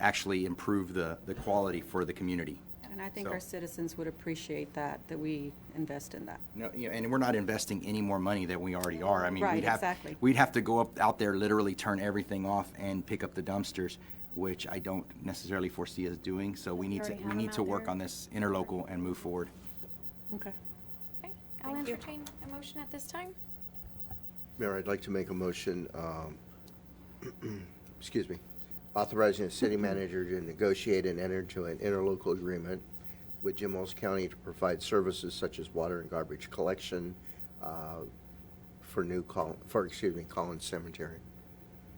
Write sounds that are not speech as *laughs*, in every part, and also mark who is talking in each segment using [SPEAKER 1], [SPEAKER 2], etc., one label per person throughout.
[SPEAKER 1] actually improve the, the quality for the community.
[SPEAKER 2] And I think
[SPEAKER 1] So-
[SPEAKER 2] our citizens would appreciate that, that we invest in that.
[SPEAKER 1] No, you know, and we're not investing any more money than we already are. I mean,
[SPEAKER 2] Right,
[SPEAKER 1] we'd have,
[SPEAKER 2] exactly.
[SPEAKER 1] we'd have to go up, out there, literally turn everything off and pick up the dumpsters, which I don't necessarily foresee us doing, so we need to,
[SPEAKER 3] already
[SPEAKER 1] we
[SPEAKER 3] have
[SPEAKER 1] need
[SPEAKER 3] them
[SPEAKER 1] to
[SPEAKER 3] out
[SPEAKER 1] work
[SPEAKER 3] there.
[SPEAKER 1] on this interlocal and move forward.
[SPEAKER 2] Okay.
[SPEAKER 3] Okay, I'll entertain a motion at this time.
[SPEAKER 4] Mayor, I'd like to make a motion, um, *clears throat* excuse me, authorizing the city manager to negotiate and enter into an interlocal agreement with Jim Wells County to provide services such as water and garbage collection uh, for new, Col- for, excuse me, Collins Cemetery.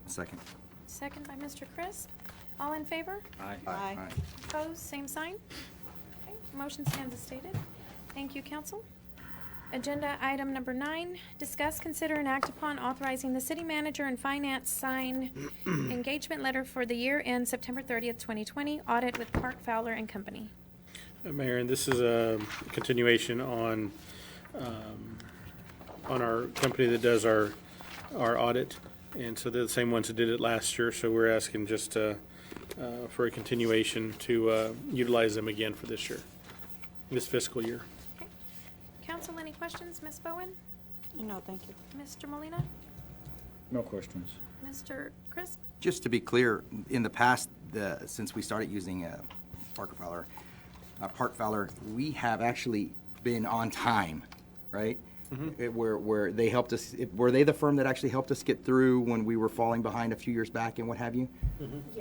[SPEAKER 1] Second.
[SPEAKER 3] Second by Mr. Crisp. All in favor?
[SPEAKER 1] Aye.
[SPEAKER 2] Aye.
[SPEAKER 3] Opposed? Same sign? Okay, Motion stands as stated. Thank you, council. Agenda item number nine, discuss, consider, and act upon authorizing the city manager and finance sign engagement letter for the year end September 30th, 2020, audit with Park Fowler and Company.
[SPEAKER 5] Uh, Mayor, and this is a continuation on, um, on our company that does our, our audit. And so they're the same ones that did it last year, so we're asking just uh, uh, for a continuation to uh, utilize them again for this year, this fiscal year.
[SPEAKER 3] Okay. Council, any questions? Ms. Bowen?
[SPEAKER 2] No, thank you.
[SPEAKER 3] Mr. Molina?
[SPEAKER 6] No questions.
[SPEAKER 3] Mr. Crisp?
[SPEAKER 1] Just to be clear, in the past, the, since we started using uh, Parker Fowler, uh, Park Fowler, we have actually been on time, right? It- Where, where they helped us, it- were they the firm that actually helped us get through when we were falling behind a few years back and what have you?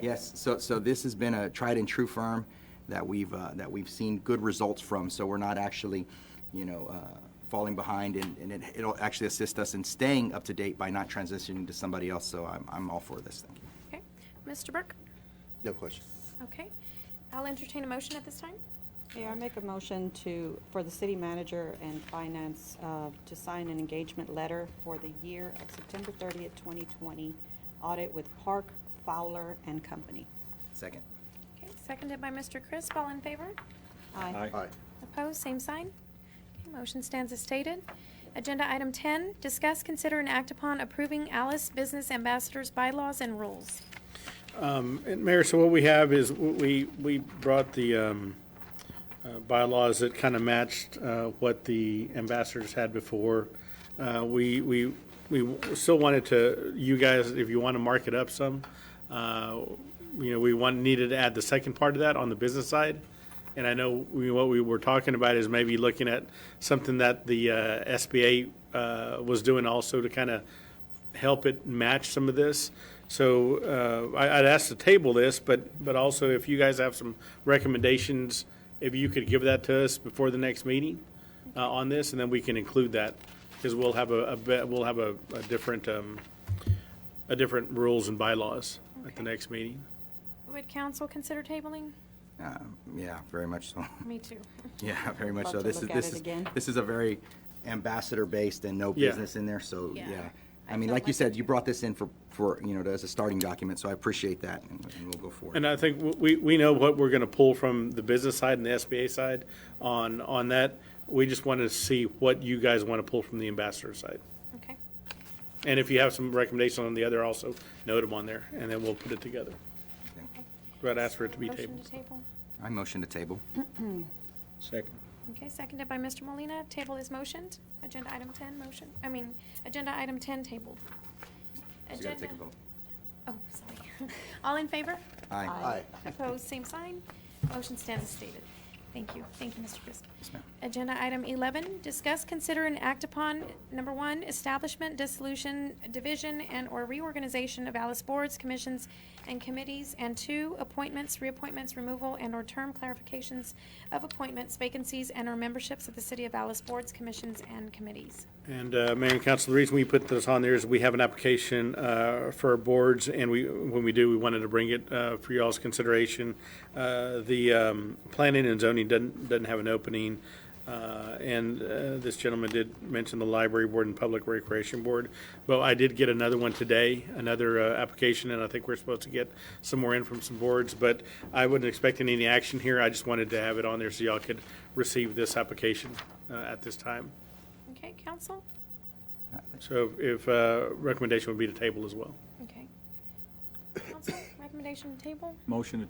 [SPEAKER 1] Yes, so, so this has been a tried and true firm that we've, uh, that we've seen good results from, so we're not actually, you know, uh, falling behind, and, and it- it'll actually assist us in staying up to date by not transitioning to somebody else, so I'm, I'm all for this, thank you.
[SPEAKER 3] Okay. Mr. Burke?
[SPEAKER 4] No question.
[SPEAKER 3] Okay. I'll entertain a motion at this time.
[SPEAKER 2] Yeah, I make a motion to, for the city manager and finance uh, to sign an engagement letter for the year of September 30th, 2020, audit with Park Fowler and Company.
[SPEAKER 1] Second.
[SPEAKER 3] Okay, seconded by Mr. Crisp. All in favor?
[SPEAKER 2] Aye.
[SPEAKER 4] Aye.
[SPEAKER 3] Opposed, same sign. Okay, Motion stands as stated. Agenda item 10, discuss, consider, and act upon approving Alice Business Ambassadors bylaws and rules.
[SPEAKER 5] And Mayor, so what we have is, w- we, we brought the um, uh, bylaws that kind of matched uh, what the ambassadors had before. Uh, We, we, we still wanted to, you guys, if you want to mark it up some, uh, you know, we want, needed to add the second part of that on the business side. And I know we, what we were talking about is maybe looking at something that the uh, SBA uh, was doing also to kind of help it match some of this. So uh, I- I'd ask to table this, but, but also if you guys have some recommendations, if you could give that to us before the next meeting uh, on this, and then we can include that, because we'll have a, a be- we'll have a a different, um, a different rules and bylaws at the
[SPEAKER 3] Okay.
[SPEAKER 5] next meeting.
[SPEAKER 3] Would council consider tabling?
[SPEAKER 1] Um, Yeah, very much so. *laughs*
[SPEAKER 3] Me too.
[SPEAKER 1] Yeah, very much
[SPEAKER 2] Love
[SPEAKER 1] so.
[SPEAKER 2] to
[SPEAKER 1] This is,
[SPEAKER 2] look at
[SPEAKER 1] this
[SPEAKER 2] it
[SPEAKER 1] is,
[SPEAKER 2] again.
[SPEAKER 1] this is a very ambassador-based and no
[SPEAKER 5] Yeah.
[SPEAKER 1] business in there, so,
[SPEAKER 3] Yeah.
[SPEAKER 1] yeah.
[SPEAKER 2] I
[SPEAKER 1] I mean,
[SPEAKER 2] felt
[SPEAKER 1] like
[SPEAKER 2] like
[SPEAKER 1] you
[SPEAKER 2] it
[SPEAKER 1] said, you
[SPEAKER 2] too.
[SPEAKER 1] brought this in for, for, you know, as a starting document, so I appreciate that, and and we'll go forward.
[SPEAKER 5] And I think w- we, we know what we're going to pull from the business side and the SBA side on, on that. We just want to see what you guys want to pull from the ambassador side.
[SPEAKER 3] *laughs* Okay.
[SPEAKER 5] And if you have some recommendations on the other, also note them on there, and then we'll put it together.
[SPEAKER 1] Okay.
[SPEAKER 5] But I'd ask for it to be
[SPEAKER 3] Motion
[SPEAKER 5] tabled.
[SPEAKER 3] to table.
[SPEAKER 1] I motion to table.
[SPEAKER 6] Second.
[SPEAKER 3] Okay, seconded by Mr. Molina. Table is motioned. Agenda item 10, motion, I mean, agenda item 10 tabled.
[SPEAKER 1] So you gotta take a
[SPEAKER 3] Agenda-
[SPEAKER 1] vote.
[SPEAKER 3] Oh, sorry. *laughs* All in favor?
[SPEAKER 1] Aye.
[SPEAKER 4] Aye.
[SPEAKER 3] Opposed, same sign. Motion stands as stated. Thank you. Thank you, Mr. Crisp.
[SPEAKER 1] Yes, ma'am.
[SPEAKER 3] Agenda item 11, discuss, consider, and act upon, number one, establishment, dissolution, division, and/or reorganization of Alice boards, commissions, and committees, and two, appointments, reappointments, removal, and/or term clarifications of appointments, vacancies, and/or memberships of the City of Alice boards, commissions, and committees.
[SPEAKER 5] And uh, Mayor and Council, the reason we put this on there is we have an application uh, for our boards, and we, when we do, we wanted to bring it uh, for y'all's consideration. Uh, The um, planning and zoning doesn't, doesn't have an opening, uh, and uh, this gentleman did mention the library board and public recreation board. But I did get another one today, another uh, application, and I think we're supposed to get some more in from some boards. But I wasn't expecting any action here. I just wanted to have it on there so y'all could receive this application uh, at this time.
[SPEAKER 3] Okay, council?
[SPEAKER 5] So if, uh, recommendation would be to table as well.
[SPEAKER 3] Okay. Council, recommendation to table?
[SPEAKER 6] Motion to